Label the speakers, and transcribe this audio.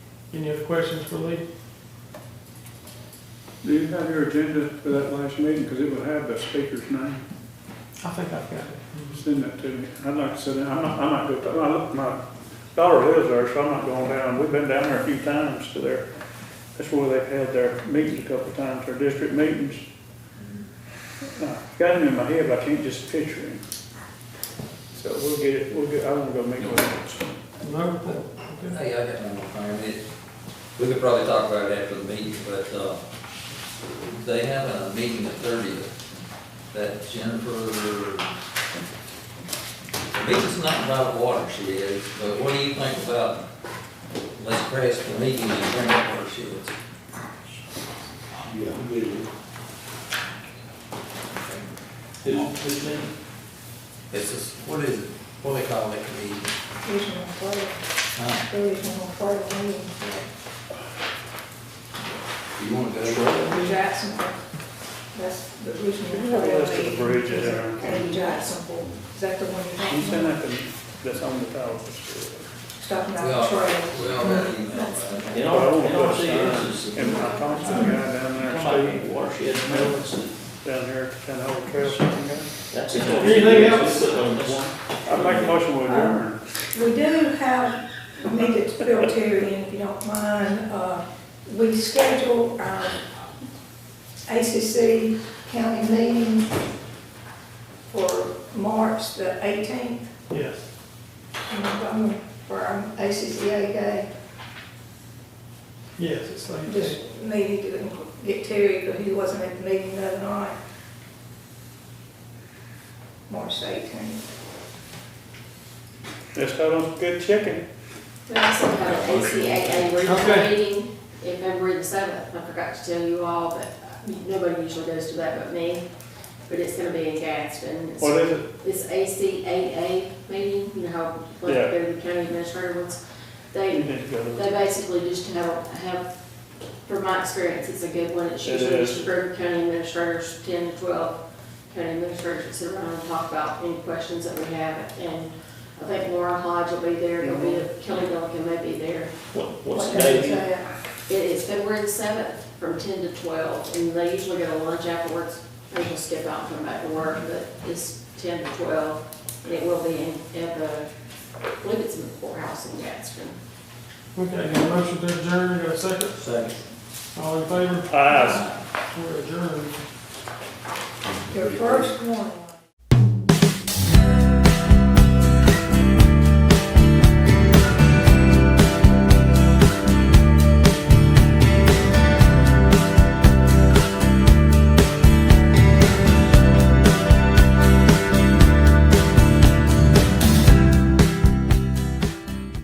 Speaker 1: Any other questions for Lee?
Speaker 2: Do you have your agenda for that last meeting? Because it will have the speaker's name.
Speaker 1: I think I've got it.
Speaker 2: Send that to me. I'd like to sit down. I'm not, I'm not good. My, look, my daughter lives there, so I'm not going down. We've been down there a few times to their, that's where they've had their meetings a couple of times, their district meetings. Uh, Got him in my head, but I can't just picture him. So we'll get it, we'll get, I want to go meet with him.
Speaker 1: No report. Okay.
Speaker 3: Hey, I got one more thing, It- we could probably talk about it after the meeting, but, uh, they have a meeting the thirtieth, that Jennifer, Lisa's not about water, she is, but what do you think about, let's press the meeting and bring up where she is?
Speaker 4: Yeah, I'm good.
Speaker 1: Who's- who's in?
Speaker 3: It's just, what is it, what do they call it, the,
Speaker 5: Regional flood,
Speaker 3: huh?
Speaker 5: regional flood meeting,
Speaker 3: You wanna go to
Speaker 5: the Jacksonville. That's the regional
Speaker 2: Yeah, that's
Speaker 5: flood
Speaker 2: the
Speaker 5: meeting.
Speaker 2: bridge in there.
Speaker 5: In Jacksonville, is that the one
Speaker 2: Can you
Speaker 5: you're
Speaker 2: send
Speaker 5: talking
Speaker 2: that
Speaker 5: about?
Speaker 2: to me? That's on the top of
Speaker 5: Talking
Speaker 3: We
Speaker 5: about
Speaker 3: all,
Speaker 5: the trail.
Speaker 3: we all got email about
Speaker 4: In
Speaker 3: it.
Speaker 4: all, in all seriousness,
Speaker 2: the And I talked to the guy down there,
Speaker 4: somebody watershed maintenance, and
Speaker 2: Steve, down here, kind of old trail. something there.
Speaker 4: that's.
Speaker 1: Anything else?
Speaker 2: I'd make a motion with adjourn.
Speaker 5: We do have, we need to fill Terry in if you don't mind. Uh, We schedule uh, our ACC county meeting for March the 18th.
Speaker 1: Yes.
Speaker 5: And I'm going for our ACCA day.
Speaker 1: Yes, it's like
Speaker 5: Just
Speaker 1: that.
Speaker 5: needed to get Terry, because he wasn't at the meeting the other night. March eighteenth.
Speaker 2: Let's start on some good chicken.
Speaker 6: We also have an ACAA regional
Speaker 1: Okay.
Speaker 6: meeting in February the seventh. I forgot to tell you all, but uh, nobody usually goes to that but me. But it's gonna be in Gadsden. It's-
Speaker 2: What is it?
Speaker 6: It's ACAA meeting, you know, how, like,
Speaker 2: Yeah.
Speaker 6: they're the county administrator ones.
Speaker 2: You
Speaker 6: They,
Speaker 2: need to go to
Speaker 6: they basically just have, have, from my experience, it's a good one. It's
Speaker 2: It
Speaker 6: usually
Speaker 2: is.
Speaker 6: just a group of county administrators, ten to twelve county administrators that sit around and talk about any questions that we have. And I think Laura Hodge will be there, there'll be, Kelly Duncan may be there.
Speaker 4: What, what's the date?
Speaker 6: It is February the seventh from ten to twelve, and they usually go to lunch afterwards. They just skip out and come back to work, but it's ten to twelve, and it will be in, at the, I believe it's in the courthouse in Gadsden.
Speaker 1: Okay, got a motion to adjourn, got a second?
Speaker 4: Second.
Speaker 1: All in favor?
Speaker 2: Eyes.
Speaker 1: We're adjourned.
Speaker 5: Your first one.